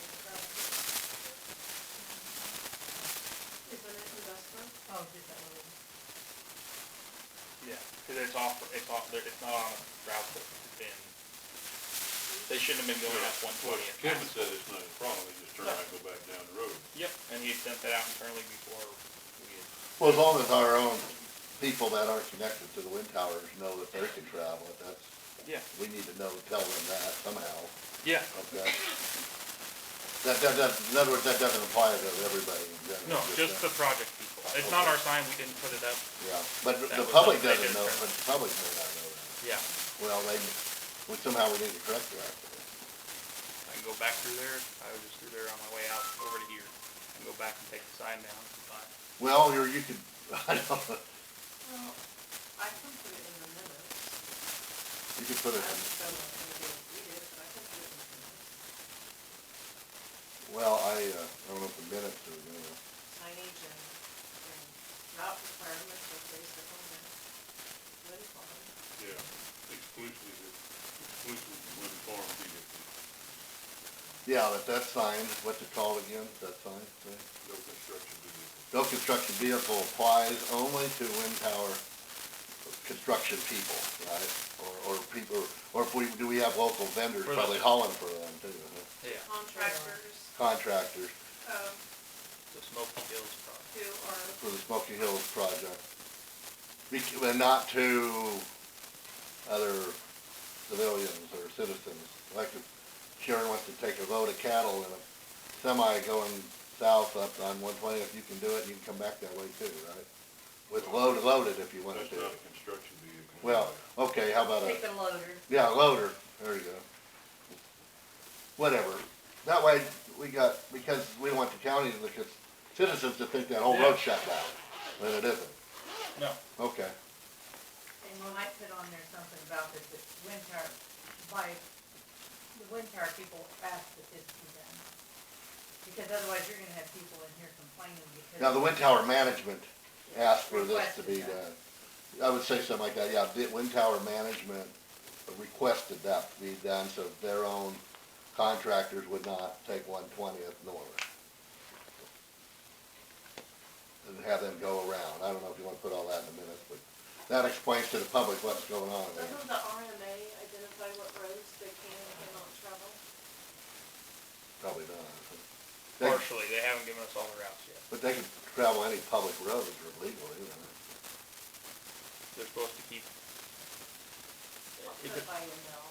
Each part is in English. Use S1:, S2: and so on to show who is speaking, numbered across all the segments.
S1: Oh,
S2: it's off, it's off, there- it's not on a route that's been, they shouldn't have been going up one
S3: Well,
S2: twenty.
S3: Kevin said it's not a problem, they just turn around and go back down the road.
S2: Yep, and he had sent that out internally before we had,
S4: Well, as long as our own people that aren't connected to the wind towers know that they can travel, it, that's,
S2: yeah,
S4: we need to know, tell them that somehow,
S2: yeah,
S4: okay? That, that, that, in other words, that doesn't apply to everybody in
S2: no,
S4: general.
S2: just the
S4: that-
S2: project people. It's not our sign, we didn't put it up,
S4: Yeah, but
S2: that
S4: the
S2: was
S4: public
S2: something they
S4: doesn't
S2: did
S4: know,
S2: for-
S4: but the public may not know that.
S2: yeah.
S4: Well, they, well, somehow we need to correct that.
S2: I can go back through there, I was just through there on my way out over to here, and go back and take the sign down, but,
S4: Well, or you could, I don't know,
S5: Well, I can put it in the minutes.
S4: you could put it
S5: I
S4: in.
S5: just don't know if anybody will read it, but I can put it in the minutes.
S4: Well, I, uh, I don't know if the minutes are gonna,
S5: Signage and, and route requirements are based upon that. What is on it?
S3: Yeah, exclusively, exclusively when farm vehicles.
S4: yeah, but that sign, what's it called again, that sign, say?
S3: no construction vehicles.
S4: No construction vehicle applies only to wind tower construction people, right? Or, or people, or if we, do we have local vendors
S2: We're
S4: probably
S2: like-
S4: hauling for them too, huh?
S2: yeah,
S5: Contractors,
S4: contractors
S5: um,
S2: the Smoky Hills project.
S5: who are,
S4: for the Smoky Hills project? Bec- And not to other civilians or citizens, like if Sharon wants to take a load of cattle in a semi going south up on one twenty, if you can do it, you can come back that way too, right? With load, loaded if you want
S3: That's
S4: to do
S3: not
S4: it.
S3: a construction vehicle.
S4: Well, okay, how about a,
S5: take the loader.
S4: yeah, a loader, there you go. Whatever, that way, we got, because we don't want the county, and the c- citizens to think that whole road shut down, when it isn't,
S2: No,
S4: okay.
S1: And when I put on there something about that the wind tower, by, the wind tower people ask that this be done. Because otherwise you're gonna have people in here complaining because.
S4: Now, the wind tower management asked for this to be
S1: Requested that.
S4: done, I would say something like that, yeah, the wind tower management requested that to be done, so their own contractors would not take one twentieth north. And have them go around, I don't know if you wanna put all that in a minute, but that explains to the public what's going on there.
S5: Doesn't the RMA identify what roads they can and cannot travel?
S4: Probably not. They-
S2: partially, they haven't given us all the routes yet.
S4: But they can travel any public roads or legally, you know.
S2: They're supposed to keep.
S5: I'll
S2: If
S5: put it
S2: it-
S5: by email.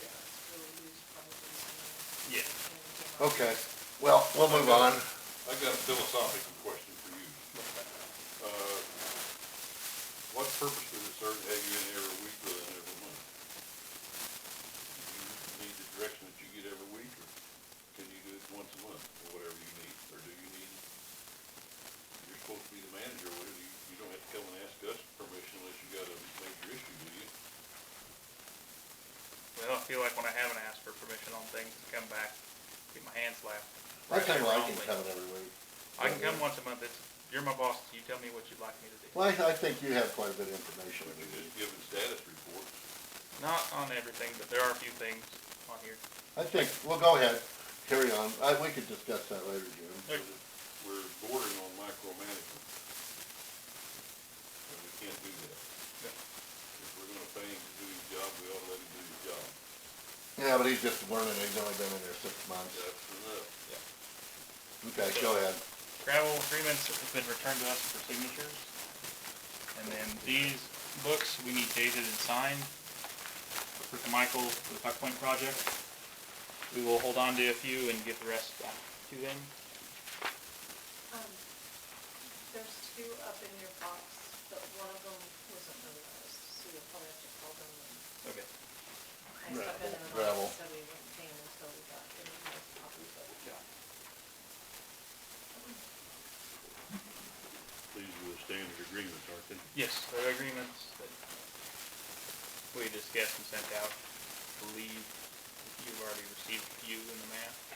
S5: Yeah. It's really used probably somewhere.
S2: Yeah.
S5: And, uh,
S4: Okay, well, we'll move on.
S3: I got a philosophical question for you. Uh, what purpose does it serve to have you in here every week rather than every month? Do you need the direction that you get every week, or can you do it once a month, or whatever you need, or do you need? You're supposed to be the manager, what do you, you don't have to come and ask us permission unless you got a major issue, do you?
S2: Well, I feel like when I haven't asked for permission on things, to come back, get my hands slapped.
S4: I think I
S2: Wrongly.
S4: can come every week.
S2: I can come once a month, it's, you're my boss, you tell me what you'd like me to do.
S4: Well, I, I think you have quite a bit of information.
S3: We do just giving status reports,
S2: Not on everything, but there are a few things on here.
S4: I think, well, go ahead, carry on. I, we could discuss that later, Jim.
S3: so that we're bordering on micromanagement. And we can't do that. If we're gonna pay him to do his job, we ought to let him do his job.
S4: Yeah, but he's just learning, he's only been in there six months.
S3: That's enough.
S4: Okay, go ahead.
S2: Travel agreements have been returned to us for signatures. And then these books, we need dated and signed for Michael, for the Puck Point project. We will hold on to a few and give the rest back to them.
S5: Um, There's two up in your box, but one of them wasn't notarized, so you'll probably have to call them. and-
S2: Okay.
S5: I stuck it in the
S4: Gravel.
S5: box, so we went not until we got the most copy, but
S3: These are the standard agreements, aren't they?
S2: Yes, there are agreements that we discussed and sent out. I believe you've already received a few in the mail.